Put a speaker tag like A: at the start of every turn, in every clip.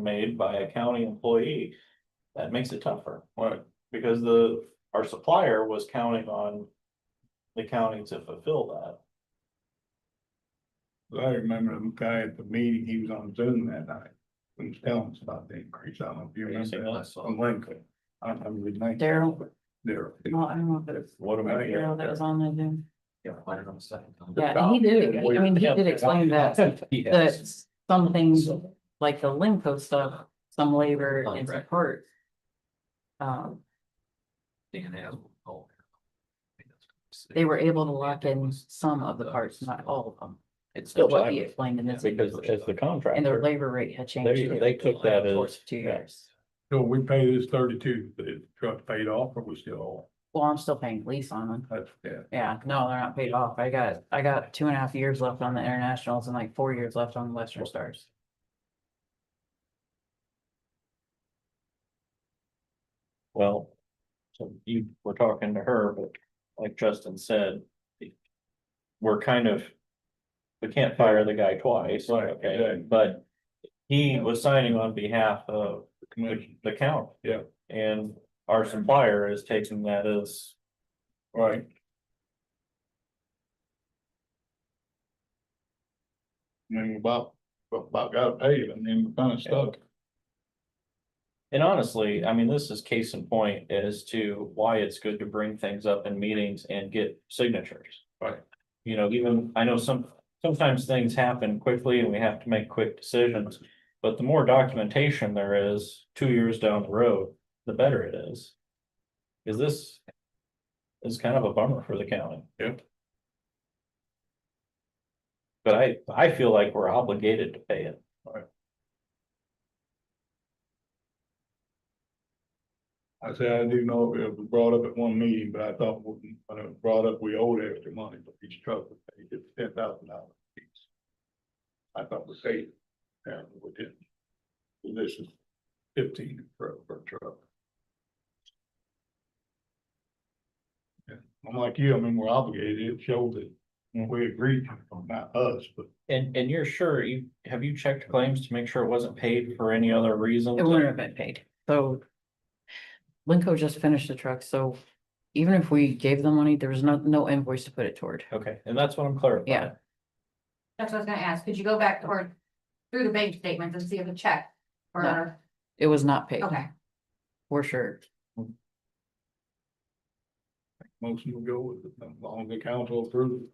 A: made by a county employee. That makes it tougher, Why? because the, our supplier was counting on the county to fulfill that.
B: I remember the guy at the meeting, he was on Zoom that night. He was telling us about the increase. I don't know if you
A: Anything
B: remember
A: else?
B: that. On Lincoln. I don't remember his name.
C: Daryl,
B: There.
C: well, I don't know if it was
A: What am I
C: Daryl that was on the
A: saying?
C: Zoom. Yeah, and he did, I mean, he did explain that, that some things, like the Limco stuff, some labor and support. Um, they were able to lock in some of the parts, not all of them,
D: It's
C: but what he explained in this.
A: Because as the
C: And their
A: contractor,
C: labor rate had changed.
A: They-
C: too,
A: they took that
C: over the
A: as-
C: course of Two
A: yeah.
C: years.
B: So we pay this thirty-two, the truck paid off or we still owe?
C: Well, I'm still paying lease on them.
B: That's, yeah.
C: Yeah, no, they're not paid off. I got, I got two and a half years left on the internationals and like four years left on the Western Stars.
A: well, so you were talking to her, but like Justin said. We're kind of, we can't fire the guy twice,
B: Right,
A: okay,
B: exactly.
A: but he was signing on behalf of the,
B: Commission.
A: the county.
B: Yeah.
A: And our supplier is taking that as
B: Right. I mean, we about, about got paid and then we kind of stuck.
A: And honestly, I mean, this is case in point as to why it's good to bring things up in meetings and get signatures.
B: Right.
A: You know, even, I know some, sometimes things happen quickly and we have to make quick decisions. But the more documentation there is, two years down the road, the better it is. Cause this is kind of a bummer for the county.
B: Yeah.
A: But I, I feel like we're obligated to pay it.
B: I said, I do know it was brought up at one meeting, but I thought when when it was brought up, we owed extra money, but each truck was paid ten thousand dollars each. I thought we paid, it. apparently we didn't. And This is fifteen per, per truck. Yeah, I'm like you, I mean, we're obligated, it showed that we agreed, not us, but
A: And, and you're sure you, have you checked claims to make sure it wasn't paid for any other reason?
C: It wouldn't have been paid, so. Linco just finished the truck, so even if we gave them money, there was no, no invoice to put it toward.
A: Okay, and that's what I'm clarifying.
C: Yeah.
E: That's what I was gonna ask, could you go back or through the bank statements and see if a check
C: No.
E: or,
C: It was not paid,
E: okay,
C: for sure.
B: most of them go with it, as long as the council approves.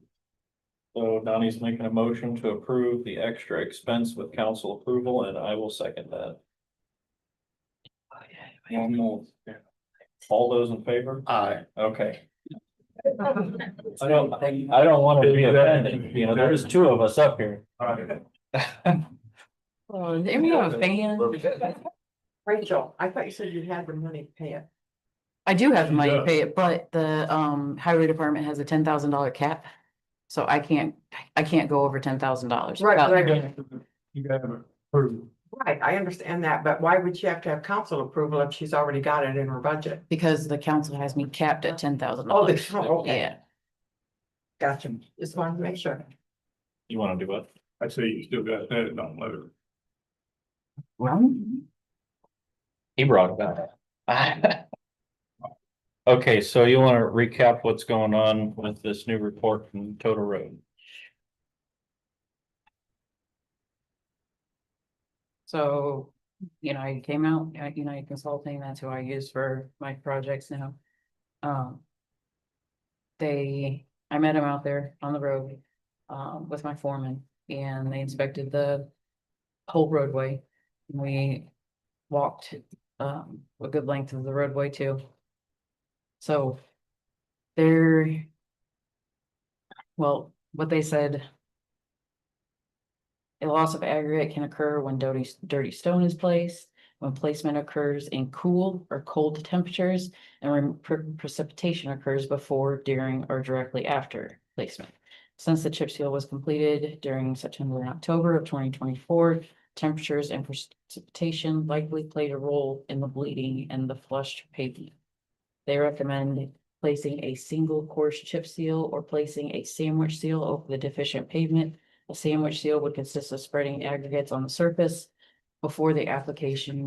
A: So Donnie's making a motion to approve the extra expense with council approval, and I will second that.
B: One more,
A: All those in favor?
B: aye.
A: Okay. I don't, I don't want to be offended, you know, there's two of us up here.
C: Oh, there you have a fan.
F: Rachel, I thought you said you had the money to pay it.
C: I do have the
B: She
C: money to
B: does.
C: pay it, but the, um, highway department has a ten thousand dollar cap. So I can't, I can't go over ten thousand dollars.
F: Right, right.
B: You gotta approve.
F: Right, I understand that, but why would she have to have council approval if she's already got it in her budget?
C: Because the council has me capped at ten thousand
F: Oh,
C: dollars.
F: they- oh, okay.
C: Yeah,
F: Gotcha. Just wanted to make sure.
A: You want to do what?
B: I say you still got that, don't let her.
A: He brought it up. Okay, so you want to recap what's going on with this new report from Total Road?
C: so, you know, I came out, uh, United Consulting, that's who I use for my projects now. Um. They, I met them out there on the road, um, with my foreman and they inspected the whole roadway. We walked, um, a good length of the roadway too. So they're well, what they said a loss of aggregate can occur when dirty, dirty stone is placed, when placement occurs in cool or cold temperatures, and when pre- precipitation occurs before, during, or directly after placement. Since the chip seal was completed during September and October of twenty twenty-four, temperatures and precipitation likely played a role in the bleeding and the flushed pavement. They recommend placing a single course chip seal or placing a sandwich seal over the deficient pavement a sandwich seal would consist of spreading aggregates on the surface. before the application